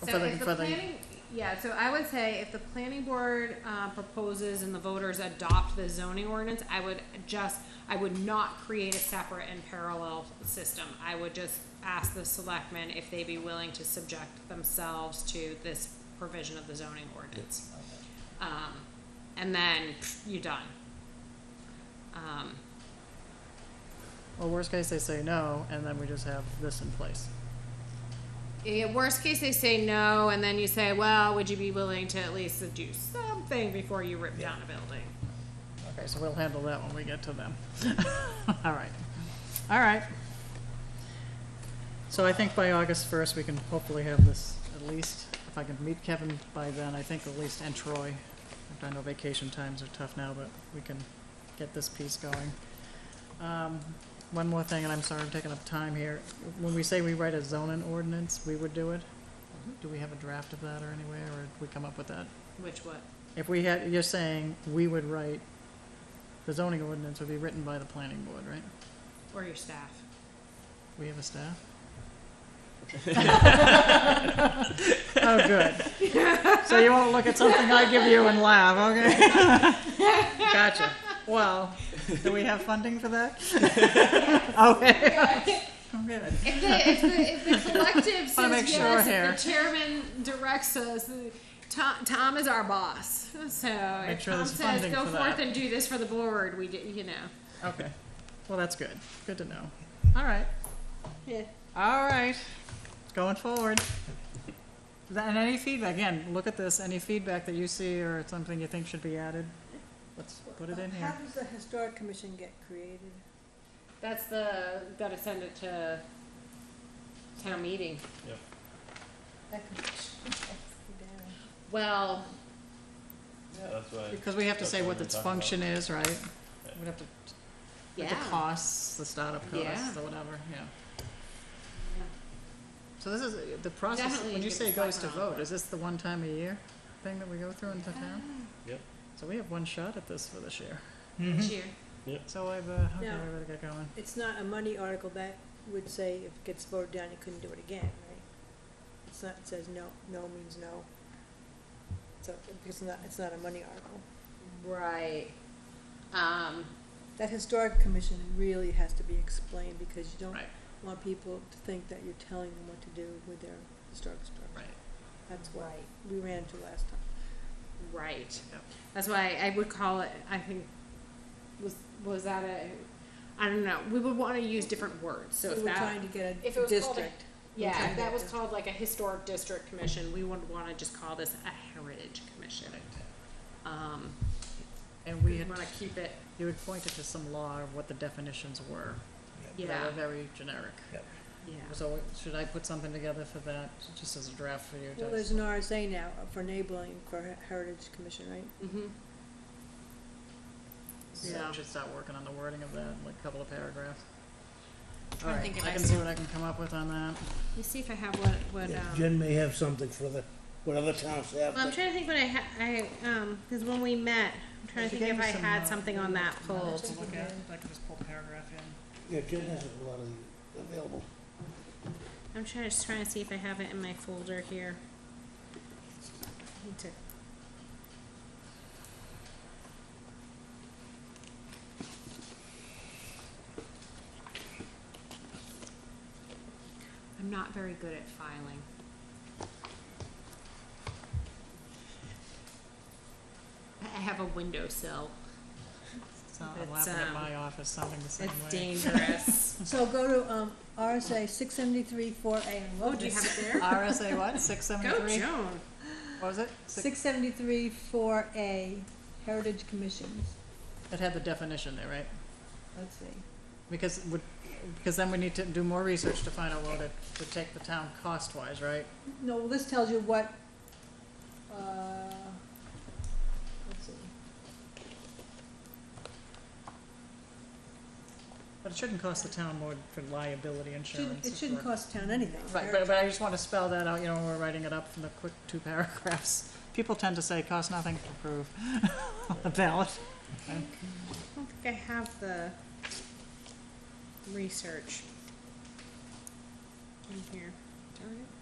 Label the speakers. Speaker 1: So
Speaker 2: for the-
Speaker 1: if the
Speaker 2: for the-
Speaker 1: planning, yeah, so I would say if the planning board, uh, proposes and the voters adopt the zoning ordinance, I would just, I would not create a separate and parallel system. I would just ask the selectmen if they be willing to subject themselves to this provision of the zoning ordinance. Um, and then pff, you're done. Um,
Speaker 2: Well, worst case, they say no, and then we just have this in place.
Speaker 1: Yeah, Eh, worst case, they say no, and then you say, well, would you be willing to at least do something before you rip down a building?
Speaker 2: Okay, so we'll handle that when we get to them. All right. All right. So I think by August first, we can hopefully have this at least, if I can meet Kevin by then, I think at least, and Troy. I know vacation times are tough now, but we can get this piece going. Um, one more thing, and I'm sorry I'm taking up time here. When we say we write a zoning ordinance, we would do it? Do we have a draft of that or anywhere, or did we come up with that?
Speaker 1: Which what?
Speaker 2: If we had, you're saying we would write, the zoning ordinance would be written by the planning board, right?
Speaker 1: Or your staff?
Speaker 2: We have a staff? Oh, good. So you won't look at something I give you and laugh, okay? Gotcha. Well, do we have funding for that? Okay. Okay.
Speaker 1: If the, if the, if the collective
Speaker 2: Wanna
Speaker 1: says
Speaker 2: make sure
Speaker 1: yes,
Speaker 2: here.
Speaker 1: if the chairman directs us, the- Tom, Tom is our boss. So
Speaker 2: Make
Speaker 1: if
Speaker 2: sure
Speaker 1: Tom
Speaker 2: there's
Speaker 1: says,
Speaker 2: funding
Speaker 1: go
Speaker 2: for
Speaker 1: forth
Speaker 2: that."
Speaker 1: and do this for the board, we, do- you know.
Speaker 2: Okay. Well, that's good. Good to know. All right.
Speaker 1: Yeah.
Speaker 2: All right, going forward. Th- And any feedback, again, look at this, any feedback that you see or something you think should be added, let's put it in here.
Speaker 3: How does the historic commission get created?
Speaker 1: That's the, gotta send it to town meeting.
Speaker 3: That commission, that's the damn-
Speaker 1: Well,
Speaker 4: Yeah, that's why.
Speaker 2: Because we have to say what
Speaker 4: That's
Speaker 2: its
Speaker 4: what we're talking
Speaker 2: function is, right? We have to, with the
Speaker 1: yeah.
Speaker 2: costs, the startup costs,
Speaker 1: Yeah.
Speaker 2: or whatever, yeah. So this is, the process,
Speaker 1: Definitely
Speaker 2: when you
Speaker 1: give
Speaker 2: say
Speaker 1: us
Speaker 2: goes to
Speaker 1: background on
Speaker 2: vote, is this the one time a year thing that we go through in the town?
Speaker 4: Yep.
Speaker 2: So we have one shot at this for this year. Mm-hmm.
Speaker 1: Cheer.
Speaker 2: So I've, uh, okay,
Speaker 3: No.
Speaker 2: I better get going.
Speaker 3: It's not a money article that would say if it gets voted down, you couldn't do it again, right? It's not, it says no, no means no. So, it's not, it's not a money article.
Speaker 1: Right. Um,
Speaker 3: That historic commission really has to be explained because you don't
Speaker 2: Right.
Speaker 3: want people to think that you're telling them what to do with their historic structure.
Speaker 2: Right.
Speaker 3: That's what we ran into last time.
Speaker 1: Right.
Speaker 2: Yep.
Speaker 1: That's why I would call it. I think was was that a. I don't know. We would want to use different words. So
Speaker 3: We
Speaker 1: if
Speaker 3: were
Speaker 1: that,
Speaker 3: trying to get
Speaker 1: if it
Speaker 3: a
Speaker 1: was called a-
Speaker 3: district.
Speaker 1: yeah,
Speaker 3: Okay.
Speaker 1: if that was called like a historic district commission, we would want to just call this a heritage commission. Um,
Speaker 2: And we
Speaker 1: we
Speaker 2: had
Speaker 1: want to keep it.
Speaker 2: You had pointed to some law of what the definitions were. They
Speaker 1: Yeah.
Speaker 2: were very generic.
Speaker 1: Yeah.
Speaker 2: So should I put something together for that, just as a draft for you?
Speaker 3: Well,
Speaker 2: guys?
Speaker 3: there's an RSA now for enabling for Her- Heritage Commission, right?
Speaker 1: Mm-hmm.
Speaker 2: So
Speaker 1: Yeah.
Speaker 2: I should start working on the wording of that, like a couple of paragraphs.
Speaker 1: trying to
Speaker 2: All
Speaker 1: think
Speaker 2: right,
Speaker 1: if
Speaker 2: I
Speaker 1: I
Speaker 2: can see what I can come up with on that.
Speaker 1: Let me see if I have what what.
Speaker 5: Yeah,
Speaker 1: Um,
Speaker 5: Jen may have something for the, what other towns have.
Speaker 1: well, I'm trying to think what I ha- I um because when we met, I'm trying to
Speaker 2: If you
Speaker 1: think
Speaker 2: gave me
Speaker 1: if I
Speaker 2: some,
Speaker 1: had
Speaker 2: uh,
Speaker 1: something on that
Speaker 2: numbers
Speaker 1: pulled.
Speaker 2: to look at, I can just pull the paragraph in.
Speaker 5: Yeah, Jen has a lot of the available.
Speaker 1: I'm trying, just trying to see if I have it in my folder here. Need to. I'm not very good at filing. I I have a windowsill.
Speaker 2: So I'm
Speaker 1: It's,
Speaker 2: laughing at
Speaker 1: um,
Speaker 2: my office, sounding the same
Speaker 1: It's
Speaker 2: way.
Speaker 1: dangerous.
Speaker 3: So go to, um, RSA six seventy-three four A and
Speaker 1: Oh,
Speaker 3: what
Speaker 1: do you
Speaker 3: was
Speaker 1: have it there?
Speaker 2: RSA what, six
Speaker 1: Go
Speaker 2: seventy-three?
Speaker 1: Joan.
Speaker 2: What was it?
Speaker 3: Six seventy-three four A, Heritage Commissions,
Speaker 2: It had the definition there, right?
Speaker 3: let's see.
Speaker 2: Because would, because then we need to do more research to find out what it would take the town cost-wise, right?
Speaker 3: No, well, this tells you what, uh, let's see.
Speaker 2: But it shouldn't cost the town more for liability
Speaker 3: Shouldn't,
Speaker 2: insurance.
Speaker 3: it shouldn't
Speaker 2: for-
Speaker 3: cost town anything.
Speaker 2: Right, but, but I just want to spell that out, you know, when we're writing it up from the quick two paragraphs. People tend to say, cost nothing to prove the ballot.
Speaker 1: I don't think I have the research in here. Darn it.